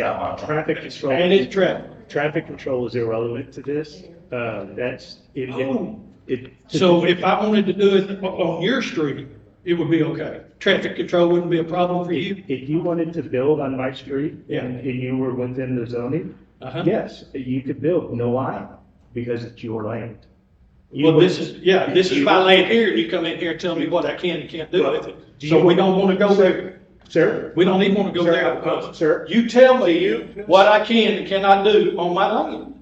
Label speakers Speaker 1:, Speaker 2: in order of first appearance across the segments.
Speaker 1: Yeah, traffic control.
Speaker 2: And it's traffic.
Speaker 1: Traffic control is irrelevant to this. Uh, that's, it, it-
Speaker 2: Oh.
Speaker 1: it.
Speaker 2: So if I wanted to do it o- on your street, it would be okay. Traffic control wouldn't be a problem for you?
Speaker 1: If you wanted to build on my street
Speaker 2: Yeah.
Speaker 1: and, and you were within the zoning,
Speaker 2: Uh-huh.
Speaker 1: yes, you could build, no why? Because it's your land. You
Speaker 2: Well,
Speaker 1: would-
Speaker 2: this is, yeah, this is
Speaker 1: you
Speaker 2: my
Speaker 1: would-
Speaker 2: land here, and you come in here and tell me what I can and can't do with it.
Speaker 1: Do
Speaker 2: So
Speaker 1: you-
Speaker 2: we don't wanna go there.
Speaker 1: Sir?
Speaker 2: We don't even wanna go
Speaker 1: Sir,
Speaker 2: there.
Speaker 1: uh, sir.
Speaker 2: You tell me what I can and cannot do on my land.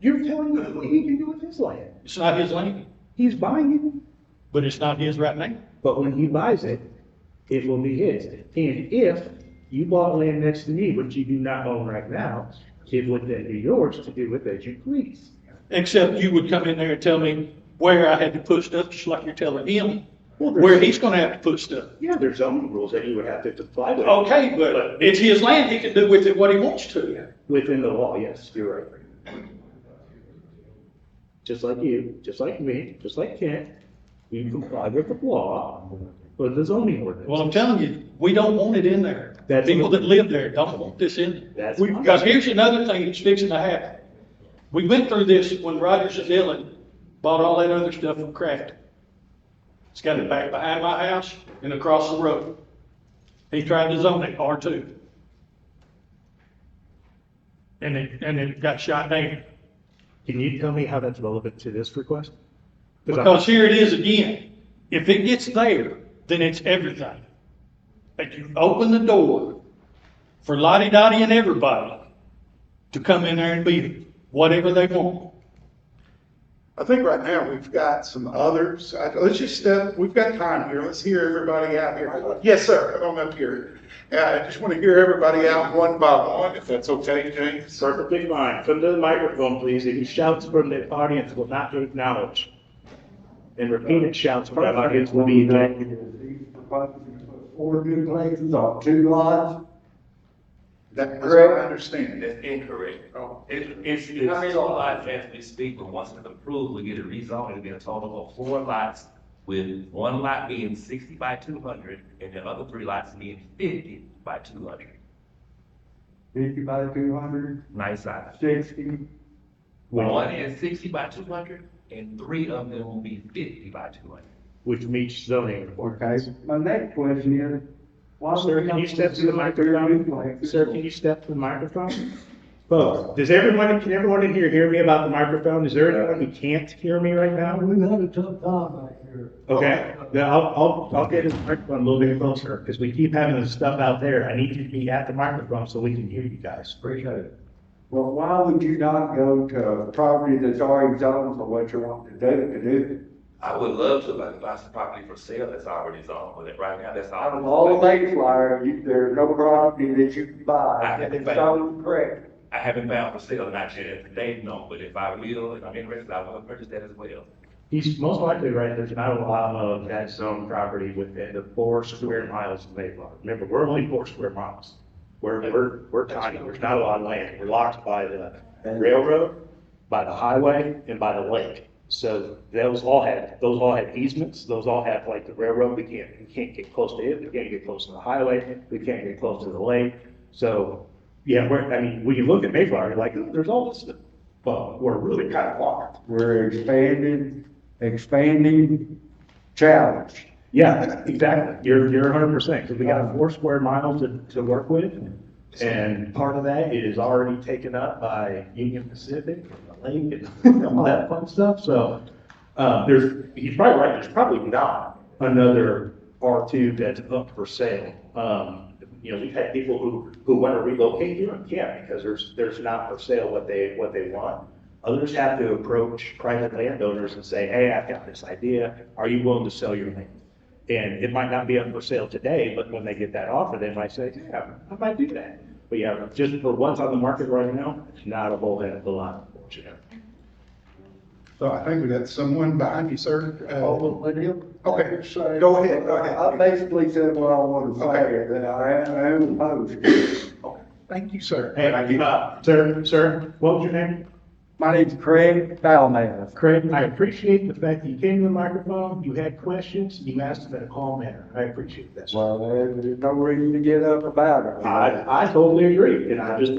Speaker 1: You're telling him what he can do with his land.
Speaker 2: It's not his land,
Speaker 1: He's buying
Speaker 2: but it's not his right now.
Speaker 1: it, but when he buys it, it will be his. And if you bought land next to me, which you do not own right now, it would then be yours to do with as you please.
Speaker 2: Except you would come in there and tell me where I had to put stuff, just like you're telling him,
Speaker 1: Well, there's-
Speaker 2: where he's gonna have to put stuff.
Speaker 1: Yeah, there's zoning rules that you would have to comply with.
Speaker 2: Okay, but it's his land, he can do with it what he wants to.
Speaker 1: Within the law, yes, you're right. Just like you, just like me, just like Kent, we comply with the law, but the zoning
Speaker 2: Well,
Speaker 1: ordinance.
Speaker 2: I'm telling you, we don't want it in there.
Speaker 1: That's-
Speaker 2: People that live there don't want this in. there.
Speaker 1: That's-
Speaker 2: We- Because here's another thing that's fixing to happen. We went through this when Rogers and Dillon bought all that other stuff from Craft. It's got it back behind my house and across the road. He tried to zone it R two. And it, and it got shot down.
Speaker 1: Can you tell me how that's relevant to this request? I'm-
Speaker 2: Because here it is again. If it gets there, then it's everything. But you open the door for Lottie Dottie and everybody to come in there and be whatever they want.
Speaker 3: I think right now we've got some others. I- Let's just, uh, we've got time here. Let's hear everybody out here. Yes, sir, come up here. Yeah, I just want to hear everybody out one by one, if that's okay, James.
Speaker 1: Perfectly fine. Come to the microphone, please. If you shout from the audience, will not be acknowledged. And repeated shouts from the audience will be ejected.
Speaker 4: Four duplexes on two lots,
Speaker 3: That- That's what I understand.
Speaker 5: That's incorrect.
Speaker 3: Oh.
Speaker 5: It, it's, it's four lots as we speak, but once it's approved, we get it rezoned, it'll be a total of four lots, with one lot being sixty by two hundred, and the other three lots being fifty by two hundred.
Speaker 4: fifty by two hundred,
Speaker 5: Nice size.
Speaker 4: sixty.
Speaker 5: One is sixty by two hundred, and three of them will be fifty by two hundred.
Speaker 1: which meets zoning.
Speaker 4: Okay, my next question is. why would
Speaker 1: Sir, can you step to the microphone?
Speaker 4: duplexes?
Speaker 1: Sir, can you step to the microphone? Folks, does everyone, can everyone in here hear me about the microphone? Is there anyone who can't hear me right now?
Speaker 4: We've had a tough time back here.
Speaker 1: Okay, then I'll, I'll, I'll get this microphone a little bit closer, because we keep having this stuff out there. I need you to be at the microphone so we can hear you guys.
Speaker 4: Appreciate it. Well, why would you not go to a property that's already zoned for what you want to do, to do?
Speaker 5: I would love to, like, buy some property for sale that's already zoned, but right now, that's
Speaker 4: Out of
Speaker 5: all.
Speaker 4: all the Mayflower, you, there's no property that you can buy that is zoned correct.
Speaker 5: I haven't found for sale, not yet, today, no, but if I will, if I'm interested, I will purchase that as well.
Speaker 1: He's most likely right, there's not a lot of that zone property within the four square miles of Mayflower. Remember, we're only four square miles. We're, we're, we're tiny, there's not a lot of land, we're locked by the railroad, by the highway, and by the lake. So those all had, those all had easements, those all have like the railroad, we can't, we can't get close to it, we can't get close to the highway, we can't get close to the lake. So, yeah, we're, I mean, when you look at Mayflower, you're like, "Ooh, there's all this, stuff." but we're really kind of locked.
Speaker 4: We're expanding, expanding challenge.
Speaker 1: Yeah, exactly. You're, you're hundred percent, because we got four square miles to, to work with. And part of that is already taken up by Union Pacific and the lake and all that fun stuff, so. Uh, there's, he's probably right, there's probably not another R two that's up for sale. Um, you know, we've had people who, who want to relocate here and can't because there's, there's not for sale what they, what they want. Others have to approach private landowners and say, hey, I've got this idea, are you willing to sell your land? And it might not be up for sale today, but when they get that offer, they might say, yeah, I might do that. But yeah, just for what's on the market right now, not a whole heck of a lot, unfortunately.
Speaker 3: So I think we got someone behind you, sir. Uh,
Speaker 4: Oh, let him-
Speaker 3: Okay, go ahead, go ahead.
Speaker 4: I basically said what I wanted to say,
Speaker 3: Okay.
Speaker 4: that I am- I am opposed.
Speaker 3: Thank you, sir.
Speaker 1: Hey, uh, sir, sir, what was your name?
Speaker 4: My name's Craig Falmouth.
Speaker 1: Craig, I appreciate the fact that you came to the microphone, you had questions, you asked them in a calm manner. I appreciate that.
Speaker 4: Well, there- there's no reason to get up about it.
Speaker 1: I, I totally agree, and I just